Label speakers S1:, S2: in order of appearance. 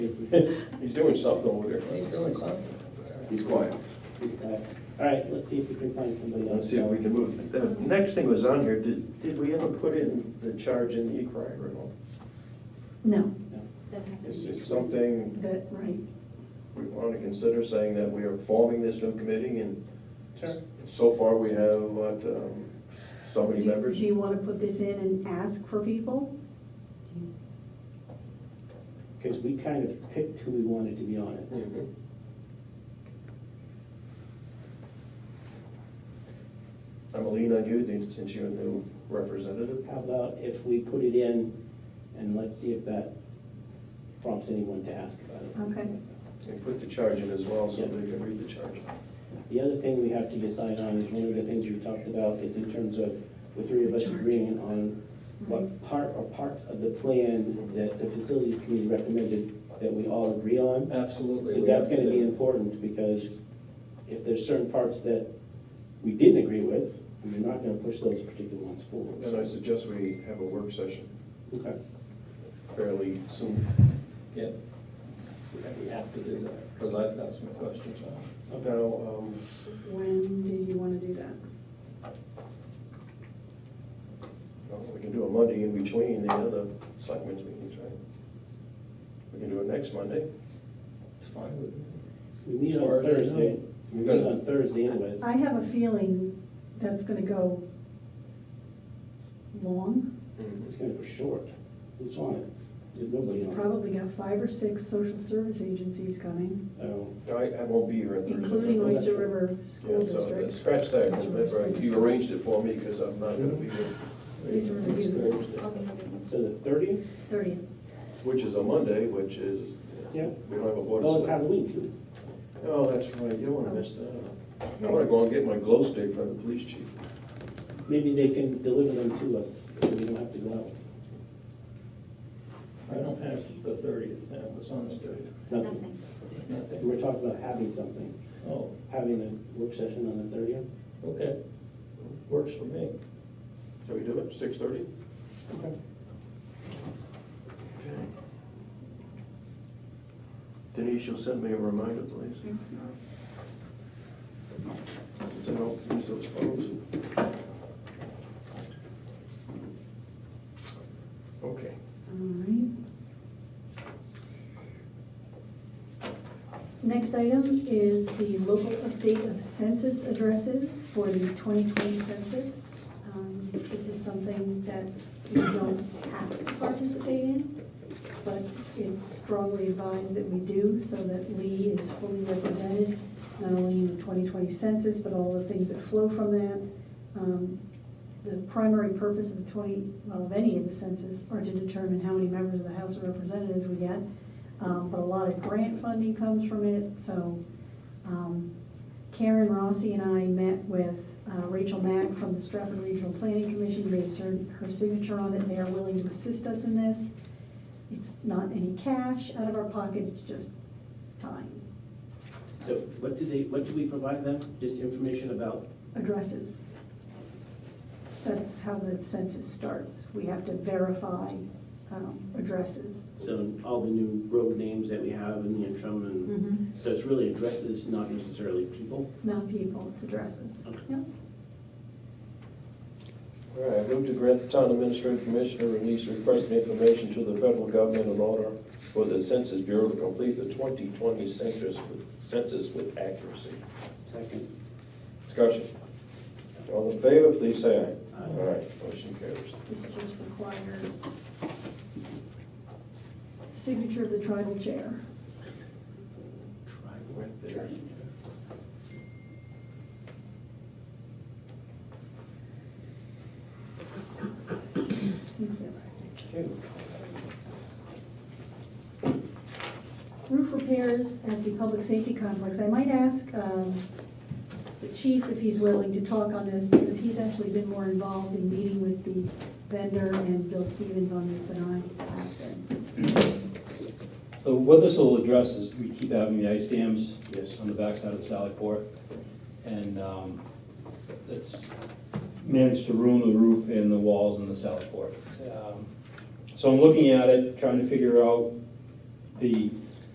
S1: He's doing something over there.
S2: He's doing something.
S3: He's quiet.
S4: All right, let's see if we can find somebody
S3: Let's
S4: else.
S3: see if we can move.
S1: The next thing was on here, did, did we ever put in the charge in the e-crime rental?
S5: No,
S6: That happened.
S1: Is it something
S5: that, right.
S1: we want to consider saying that we are forming this new committee and
S4: Sure.
S1: so far we have, what, um, so many
S5: Do-
S1: members?
S5: Do you want to put this in and ask for people?
S4: Because we kind of picked who we wanted to be on it.
S1: Mhm. I'm gonna lean on you then, since you're a new representative.
S4: How about if we put it in and let's see if that prompts anyone to ask about it?
S5: Okay.
S1: And put the charge in as well, so
S4: Yeah.
S1: they can read the charge.
S4: The other thing we have to decide on is one of the things we talked about is in terms of the three of us agreeing on what part or parts of the plan that the facilities committee recommended that we all agree on.
S2: Absolutely.
S4: Because that's gonna be important, because if there's certain parts that we didn't agree with, we're not gonna push those particular ones forward.
S1: And I suggest we have a work session
S4: Okay.
S1: fairly soon.
S2: Yeah. We have to do that, because I've got some questions on it.
S1: Now, um,
S5: When do you want to do that?
S1: well, we can do a Monday in between the other selectmen's meetings, right? We can do it next Monday.
S2: It's fine with me.
S4: We meet
S2: Sure.
S4: on Thursday, we meet
S1: Good.
S4: on Thursday anyways.
S5: I have a feeling that's going to go long.
S1: Mm-hmm.
S4: It's gonna go short. Who's on it? There's nobody on it.
S5: Probably got five or six social service agencies coming,
S4: Oh,
S1: I, I won't be here on Thursday.
S5: including
S4: that's
S5: Oyster
S4: right.
S5: River
S1: Yeah,
S5: School
S1: so the-
S5: District.
S1: Scratch that, remember, you arranged it for me because I'm not gonna be here.
S5: Oyster River Youth,
S6: I'll be having-
S4: So the thirtieth?
S5: 30th.
S1: Which is a Monday, which is,
S4: Yeah.
S1: we don't have a board. of
S4: Well, it's
S1: select-
S4: Halloween too.
S1: Oh, that's right, you don't wanna miss that. I wanna go and get my glow stick from the police chief.
S4: Maybe they can deliver them to us, so we don't have to go out.
S2: I don't have the thirtieth now, what's on the thirtieth?
S4: Nothing.
S6: Nothing.
S4: We
S2: Nothing.
S4: We're talking about having something,
S2: Oh,
S4: having a work session on the thirtieth.
S2: okay. Works for me.
S1: Shall we do it, six thirty?
S4: Okay.
S1: Denise, you'll send me a reminder, please. Since I don't use those phones. Okay.
S5: All right. Next item is the local update of census addresses for the 2020 census. Um, This is something that we don't have to participate in, but it's strongly advised that we do so that Lee is fully represented, not only in the 2020 census, but all the things that flow from that. Um, the primary purpose of the 20, well, of any of the census are to determine how many members of the House of Representatives we get. Um, But a lot of grant funding comes from it, so um, Karen Rossi and I met with uh, Rachel Mack from the Stratford Regional Planning Commission, raised her, her signature on it, they are willing to assist us in this. It's not any cash out of our pocket, it's just time,
S4: So what do they, what do we provide them? Just information about,
S5: addresses. That's how the census starts. We have to verify um, addresses.
S4: so all the new road names that we have in the interim and,
S5: It's
S4: so it's really addresses, not necessarily people.
S5: not people, it's addresses.
S4: Okay.
S5: Yep.
S1: All right, I move to grant the town administrator commissioner release requesting information to the federal government in order for the Census Bureau to complete the 2020 census with, census with accuracy.
S4: Second.
S1: Discussion. All in favor, please say aye.
S4: Aye.
S1: All right, motion carries.
S5: This just requires signature of the tribal chair.
S4: Try
S1: Right there.
S5: Thank you.
S1: Okay.
S5: Roof repairs at the public safety complex. I might ask um, the chief if he's willing to talk on this because he's actually been more involved in meeting with the vendor and Bill Stevens on this than I have been.
S7: So what this will address is we keep having the ice dams
S1: Yes.
S7: on the backside of the Sally Port. And um, it's managed to ruin the roof and the walls in the Sally Port. Um, So I'm looking at it, trying to figure out the